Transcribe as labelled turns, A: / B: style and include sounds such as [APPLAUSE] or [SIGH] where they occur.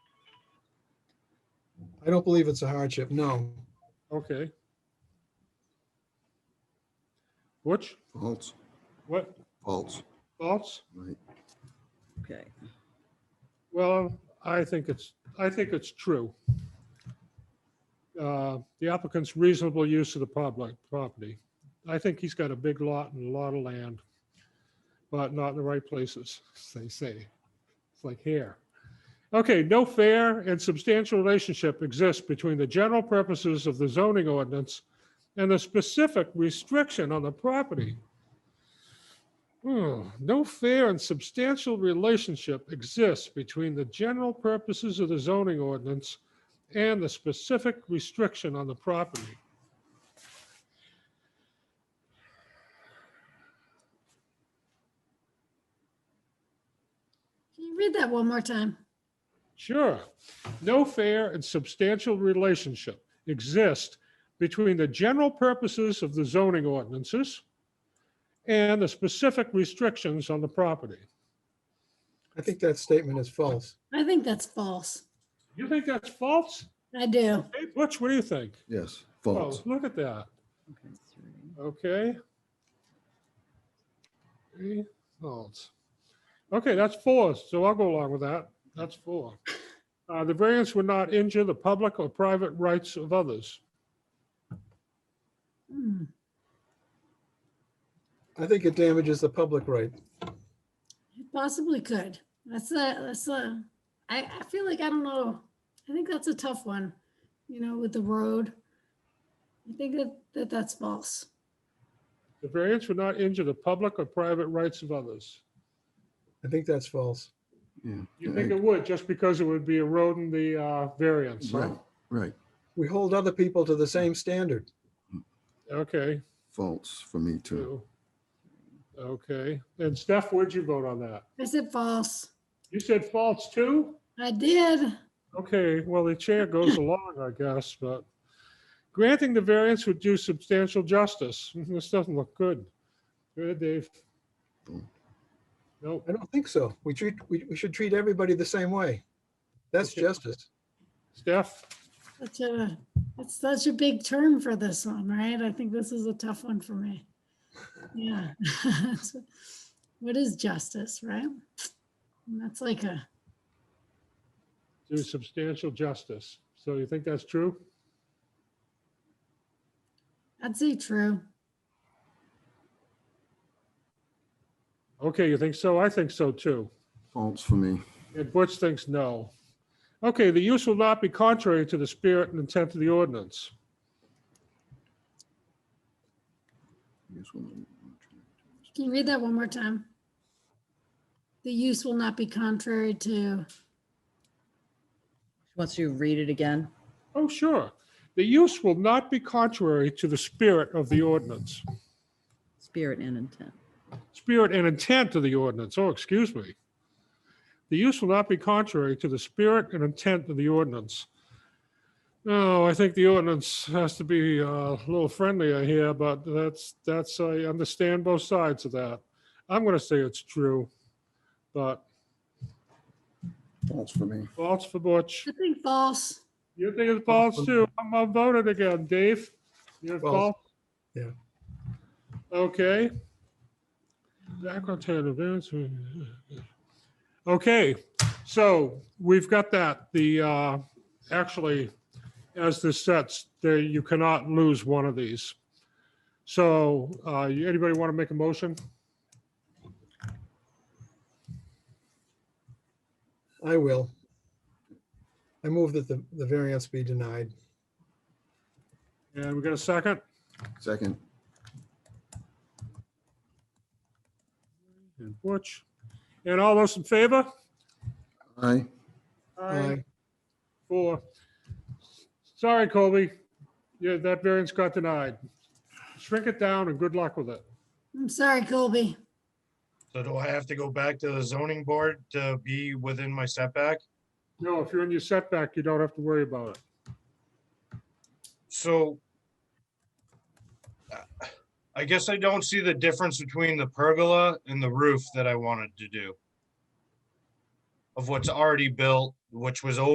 A: I don't believe it's a hardship, no.
B: Okay. Which,
C: False,
B: what,
C: false,
B: thoughts?
C: right.
D: Okay.
B: Well, I think it's, I think it's true. Uh, The applicant's reasonable use of the public property. I think he's got a big lot and a lot of land, but not in the right places, as they say. It's like hair. Okay, no fair and substantial relationship exists between the general purposes of the zoning ordinance and the specific restriction on the property. Hmm, No fair and substantial relationship exists between the general purposes of the zoning ordinance and the specific restriction on the property.
E: Can you read that one more time?
B: Sure. No fair and substantial relationship exists between the general purposes of the zoning ordinances and the specific restrictions on the property.
A: I think that statement is false.
E: I think that's false.
B: You think that's false?
E: I do.
B: Hey, Butch, what do you think?
C: Yes,
B: Oh,
C: false,
B: look at that.
D: Okay. three.
B: Okay. Three votes. Okay, that's four, so I'll go along with that. That's four. Uh, The variance would not injure the public or private rights of others.
E: Hmm.
A: I think it damages the public right.
E: It Possibly could. That's a, that's a, I, I feel like, I don't know. I think that's a tough one, you know, with the road. I think that, that that's false.
B: The variance would not injure the public or private rights of others.
A: I think that's false.
C: yeah.
B: You think
C: yeah,
B: it would, just because it would be eroding the uh, variance, huh?
C: Right, right,
A: We hold other people to the same standard.
B: Okay,
C: false for me too.
B: two. Okay, and Steph, where'd you vote on that?
E: I said false.
B: You said false too?
E: I did.
B: Okay, well, the chair goes along, I guess, but granting the variance would do substantial justice. [LAUGHS] This doesn't look good. Good, Dave.
C: Boom.
B: Nope,
A: I don't think so. We treat, we, we should treat everybody the same way. That's
B: Okay.
A: justice.
B: Steph,
E: That's a, that's such a big term for this one, right? I think this is a tough one for me. Yeah. [LAUGHS] What is justice, right? And That's like a,
B: do substantial justice. So you think that's true?
E: I'd say true.
B: Okay, you think so? I think so too.
C: False for me,
B: And Butch thinks no. Okay, the use will not be contrary to the spirit and intent of the ordinance.
C: Yes, woman.
E: Can you read that one more time? The use will not be contrary to,
D: Wants you to read it again?
B: Oh, sure. The use will not be contrary to the spirit of the ordinance,
D: Spirit and intent.
B: spirit and intent of the ordinance. Oh, excuse me. The use will not be contrary to the spirit and intent of the ordinance. No, I think the ordinance has to be uh, a little friendlier here, but that's, that's, I understand both sides of that. I'm going to say it's true, but
C: false for me,
B: false for Butch.
E: I think false.
B: You think it's false too? I'm I'm voted again, Dave. You're
A: False.
B: false?
A: Yeah.
B: Okay. Background tear events. Okay, so we've got that. The, uh, actually, as this sets, there, you cannot lose one of these. So, uh, you- anybody want to make a motion?
A: I will. I move that the, the variance be denied.
B: And we got a second?
C: second,
B: And Butch? And all those in favor?
C: aye,
A: Aye.
B: Four. Sorry, Colby. Yeah, that variance got denied. Shrink it down and good luck with it.
E: I'm sorry, Colby.
F: So do I have to go back to the zoning board to be within my setback?
B: No, if you're in your setback, you don't have to worry about it.
F: So uh, I guess I don't see the difference between the pergola and the roof that I wanted to do of what's already built, which was over.